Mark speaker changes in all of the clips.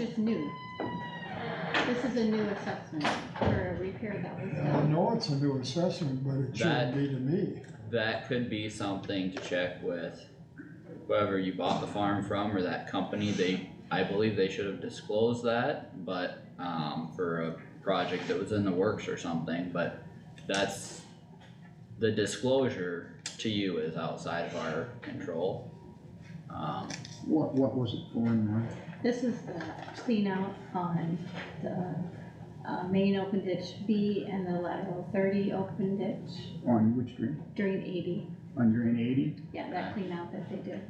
Speaker 1: is new. This is a new assessment for a repair that was
Speaker 2: I
Speaker 1: done.
Speaker 2: know it's a new assessment, but it shouldn't be to me.
Speaker 3: That could be something to check with whoever you bought the farm from or that company, they, I believe they should have disclosed that, but, um, for a project that was in the works or something, but that's, the disclosure to you is outside of our control. Um,
Speaker 4: What, what was it for in there?
Speaker 1: This is the clean out on the, uh, main open ditch B and the lateral thirty open ditch
Speaker 4: On which drain?
Speaker 1: during eighty.
Speaker 4: On drain eighty?
Speaker 1: Yeah, that clean out that they did.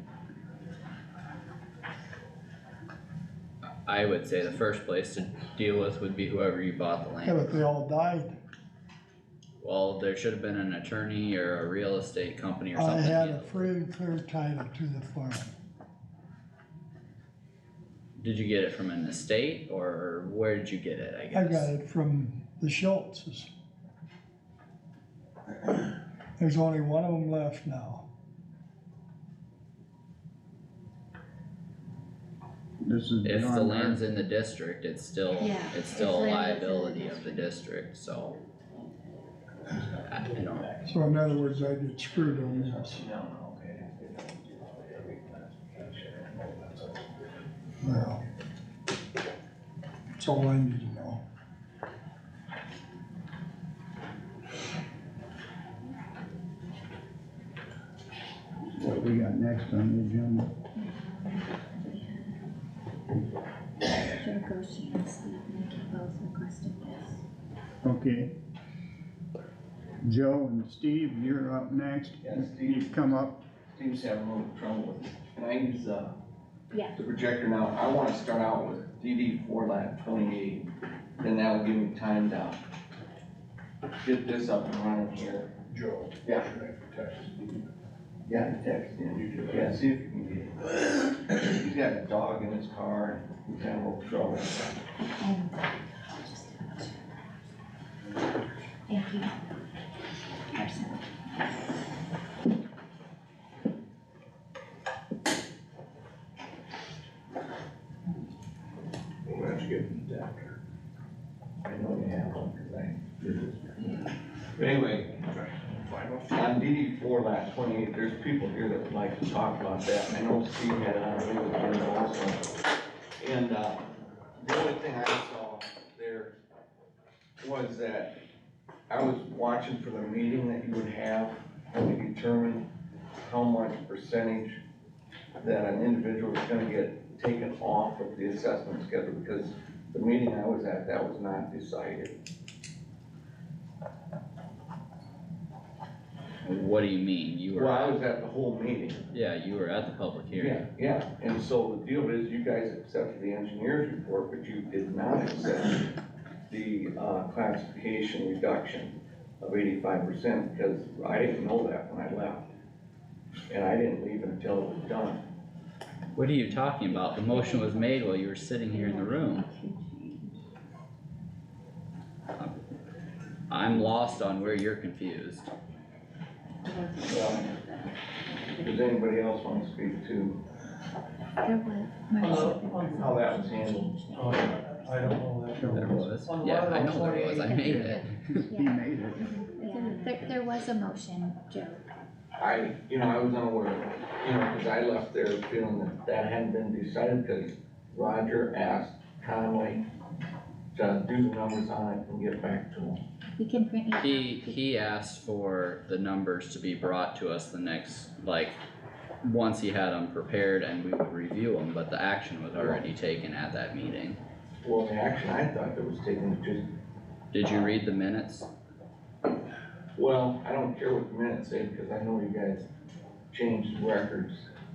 Speaker 3: I would say the first place to deal with would be whoever you bought the
Speaker 2: Yeah,
Speaker 3: land.
Speaker 2: but they all died.
Speaker 3: Well, there should have been an attorney or a real estate company or
Speaker 2: I
Speaker 3: something.
Speaker 2: had a free and clear title to the farm.
Speaker 3: Did you get it from an estate or where did you get it, I
Speaker 2: I
Speaker 3: guess?
Speaker 2: got it from the Schultzes. There's only one of them left now.
Speaker 4: This
Speaker 3: If
Speaker 4: is.
Speaker 3: the
Speaker 4: beyond our-
Speaker 5: uh,
Speaker 3: land's in the district, it's still,
Speaker 1: Yeah,
Speaker 3: it's still a
Speaker 1: if land is in the
Speaker 3: liability of the district, so. I I don't,
Speaker 2: So in other words, I get screwed on this. Well, that's all I need to know.
Speaker 4: What we got next on the agenda?
Speaker 1: Joe Goshi and Steve Nicky both requested this.
Speaker 4: Okay. Joe and Steve, you're up next.
Speaker 5: Yeah, Steve.
Speaker 4: You've come up.
Speaker 5: Seems to have a little trouble with it. Can I use, uh,
Speaker 1: Yeah.
Speaker 5: the projector now? I wanna start out with DD four lap twenty-eight, then that'll give me time to get this up and running here.
Speaker 6: Joe.
Speaker 5: Yeah.
Speaker 6: Should I text Steve?
Speaker 5: Yeah, text
Speaker 6: You do
Speaker 5: him.
Speaker 6: that.
Speaker 5: Yeah, see if you can get it. He's got a dog in his car and he's having a little trouble.
Speaker 1: uh, Thank you. Carson.
Speaker 6: We'll have to get an adapter.
Speaker 5: I know you have one, cause I did this. But anyway, On DD four last twenty-eight, there's people here that would like to talk about that, I know Steve had it on his agenda also. And, uh, the only thing I saw there was that I was watching for the meeting that you would have to determine how much percentage that an individual is gonna get taken off of the assessment schedule, because the meeting I was at, that was not decided.
Speaker 3: what do you mean? You
Speaker 5: Well, I
Speaker 3: were,
Speaker 5: was at the whole meeting.
Speaker 3: yeah, you were at the public
Speaker 5: Yeah,
Speaker 3: hearing.
Speaker 5: yeah, and so the deal is, you guys accepted the engineer's report, but you did not accept the, uh, classification reduction of eighty-five percent, because I didn't know that when I left. And I didn't leave until it was done.
Speaker 3: What are you talking about? The motion was made while you were sitting here in the room. I'm lost on where you're confused.
Speaker 5: Well, Does anybody else want to speak to uh, how that was handled?
Speaker 7: Oh, I don't know that.
Speaker 4: Joe.
Speaker 3: There was,
Speaker 7: On
Speaker 3: yeah, I
Speaker 7: lateral
Speaker 3: know there was, I
Speaker 7: 28.
Speaker 3: made it.
Speaker 4: He made it.
Speaker 8: Yeah, there, there was a motion, Joe.
Speaker 5: I, you know, I was unaware, you know, because I left there feeling that that hadn't been decided, because Roger asked Conway to do the numbers on it and get back to him.
Speaker 8: We can print you. a
Speaker 3: He,
Speaker 8: copy.
Speaker 3: he asked for the numbers to be brought to us the next, like, once he had them prepared and we would review them, but the action was already taken at that meeting.
Speaker 5: Well, the action I thought that was taken was just,
Speaker 3: Did you read the minutes?
Speaker 5: well, I don't care what the minutes say, because I know you guys changed records.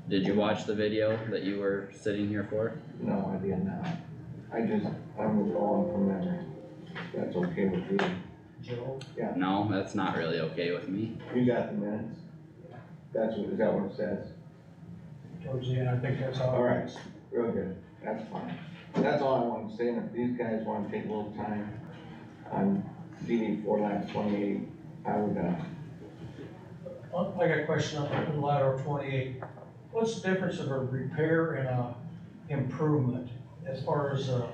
Speaker 3: Did you watch the video that you were sitting here for?
Speaker 5: No, I did not. I just, I'm withdrawing from memory. That's okay with you.
Speaker 7: Joe,
Speaker 3: No, that's not really okay with me.
Speaker 5: You got the minutes? That's what, is that what it says?
Speaker 7: towards the end, I think that's all.
Speaker 5: All right, real good, that's fine. That's all I want to say, and if these guys want to take a little time on DD four last twenty-eight, I would, uh,
Speaker 7: Well, I got a question on lateral twenty-eight. What's the difference of a repair and a improvement? as far as, uh,